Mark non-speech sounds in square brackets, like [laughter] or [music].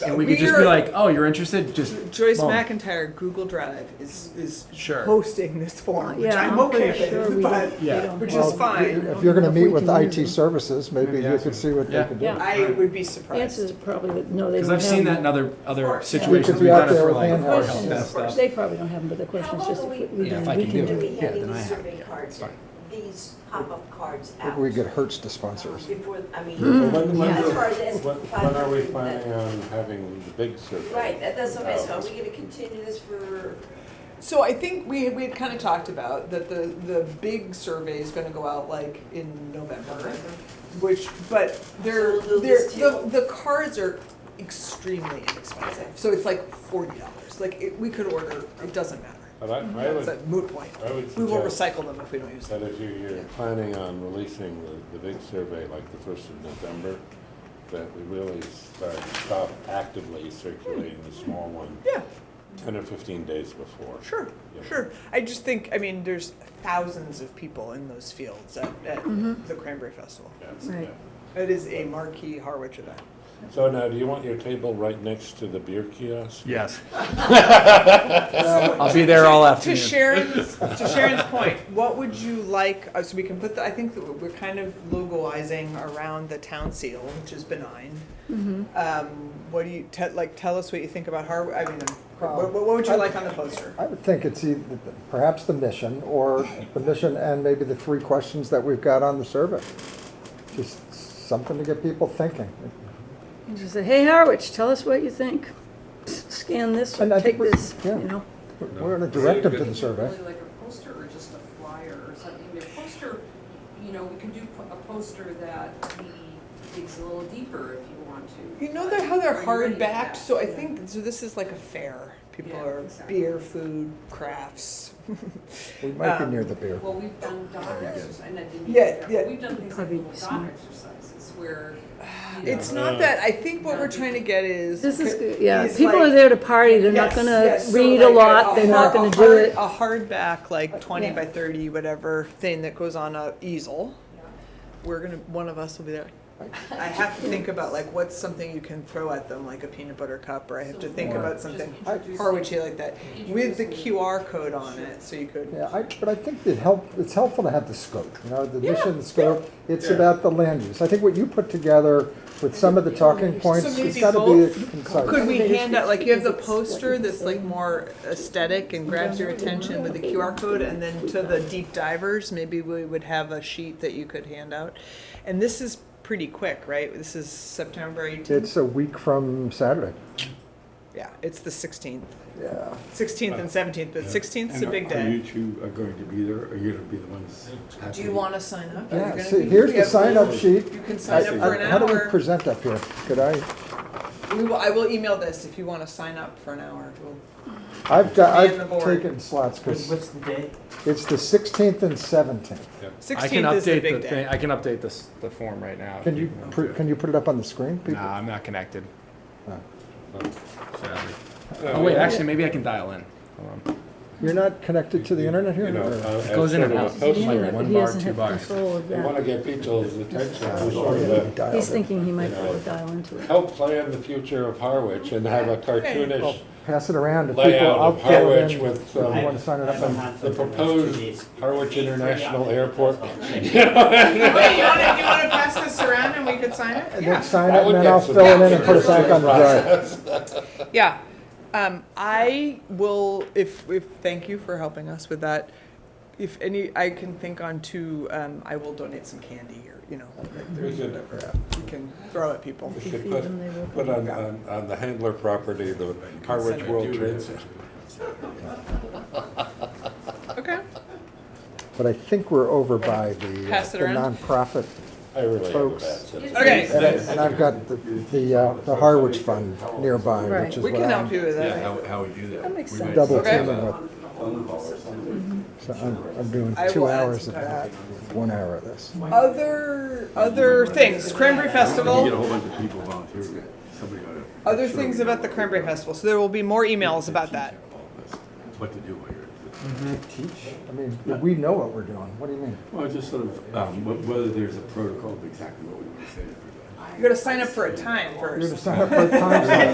and we could just be We're- like, "Oh, you're interested? Just Joyce boom. McIntyre, Google Drive is is Sure. hosting this forum, which Yeah, I'm pretty okay sure with, we but don't- we Yeah. don't which have- is fine. If you're gonna If we meet with can use IT it. services, maybe Maybe you ask them. could see what they Yeah. can do. Yeah, I would be the answer is surprised. probably that, no, they Because don't have. I've seen that in them. other other course. situations We we've could be done out it there for with like hand our help help Questions. desk stuff. They probably don't have them, but the question is How if about we, we- we Yeah, can, if I we can can do Do do we it. Yeah, have then I these have- survey yeah, cards, fine. these pop-up cards out? We get Hertz to sponsor us. Before, I When, mean, when Yeah. do- As far as asking when- for when are we 500, planning on having the big Um, survey? right, that- that's what I said, are out? we gonna continue this for, So I think we we had kind of talked about that the the big survey is going to go out like in November, which but they're So we'll do they're this the, too. the cards are extremely inexpensive. So it's like forty dollars. Like it, we could order. It doesn't matter. But I, I It's a would, moot point. I would We will suggest recycle them if we don't use them. that if you, you're planning on releasing the, the big survey like the first of November, that we really start, stop actively circulating the small one Yeah. ten or fifteen days before. Sure, Yeah. sure. I just think, I mean, there's thousands of people in those fields at, at the Cranberry Festival. Yes, Right. yeah. It is a marquee Harwich event. So now, do you want your table right next to the beer kiosk? Yes. [laughs] I'll be there all To afternoon. [laughs] Sharon's, to Sharon's point, what would you like, uh, so we can put the, I think that we're kind of logoizing around the town seal, which is benign. Um, what do you, te- like, tell us what you think about Harwich, I mean, what, what would you like on the poster? I would think it's either, perhaps the mission, or the mission and maybe the three questions that we've got on the survey. Just something to get people thinking. And she said, hey, Harwich, tell us what you think. Scan this, And I take think we're- this, you yeah. know? We're in a directive to the survey. Really like a poster or just a flyer or something, the poster, you know, we can do po- a poster that we digs a little deeper if you want to. You know they're, how they're Are you ready hard for backed, that? so I Yeah. think so. This is like a fair. People Yeah, are exactly. beer, food, crafts. We might be Um, near the beer. Well, we've done dot exercises, and I didn't. Yeah, yeah. We've done things like Probably little dot smart. exercises where, you know. It's not that. I think what we're trying to get is Uh, This is, good. yeah, is people like- are there to party, they're not Yes, gonna yes, so read a like lot, they're not hard- gonna do a it. hard- A hardback, like twenty yeah. by thirty, whatever thing that goes on a easel. Yeah. We're gonna. One of us will be there. I have to think about like what's something you can throw at them, like a peanut butter cup, or I have to So think more about just something introducing- Harwichy like that with the introducing- QR code on it, so you could. Yeah, I, but I think it help, it's helpful to have the scope, you know, the Yeah, mission, the scope. It's Yeah. about the land use. I think what you put together with some of the talking points, maybe it's gotta both? be concise. Could we Everything is hand out, like, fixed you have the because it's what poster you that's like say. more aesthetic and grabs your attention with the QR code, and then to the deep divers, maybe we would have a sheet that you could hand out. And this is pretty quick, right? This is September eighteenth? It's a week from Saturday. Yeah, it's the sixteenth, Yeah. sixteenth and seventeenth, but sixteenth is a And big Are you day. two are going to be there, or you're going to be the ones? Do you wanna sign up? Are you Yeah, gonna see, be- here's we the have- sign-up sheet. You can I- sign up for I- an How do we hour. present up here? Could I, We will, I will email this if you wanna sign up for an hour. We'll- I've got, Man the I've board. taken slots, because it's the sixteenth and seventeenth. I can Sixteenth is the update big the thing. day. I can update this the form right now. if Can you, want pr- to. can you put it up on the screen? people? Nah, I'm not connected. No. Oh wait, actually, maybe I can dial in. Hold on. You're not connected to the internet here? You know, or- uh, It goes in as and out. sort of a He's poster, doing it, like but one he bar, doesn't two have bars. control of You want to that. get people's Uh, attention, to oh, sort yeah, of you a- dialed He's it. thinking he might be able to dial into it. help plan the future of Harwich and have a Well, cartoonish Pass it around to people. layout I'll of fill it Harwich in with if you some- want to sign it up on- the proposed Harwich International Airport. Wait, you wanna, you wanna pass this around and we could sign it? And Yeah. then sign That it, would and then get I'll some fill it in and put it traction. back on the drive. Yeah, um, I will, if, if, thank you for helping us with that. If any, I can think on two, um, I will donate some candy or, you know, like there's We could- whatever, uh, you can throw at people. We If you should feed put, them, they will put on, on, on the handler property, the Harwich World Trade Center. Okay, But I think we're over by the uh, Pass it the around. nonprofit, I really have a Folks. bad sense. okay, and and I've got the, the uh, the Harwich Fund nearby, Right. which is we what can help I'm you with Yeah, that. how, how we do that. That makes We sense. might- double Okay. teaming with. So I'm, I'm doing I two will add hours some of time. that, with one hour of this. Other, other things, Cranberry You get a Festival, whole bunch of people volunteering, somebody ought to. other things about the Cranberry Festival, so there will be more emails about that. What to do while you're. Teach? I mean, we know what we're doing, what do you mean? Well, just sort of, um, wh- whether there's a protocol of exactly what we want to say to everybody. You gotta sign up for a time first. You're gonna sign up for a time slot.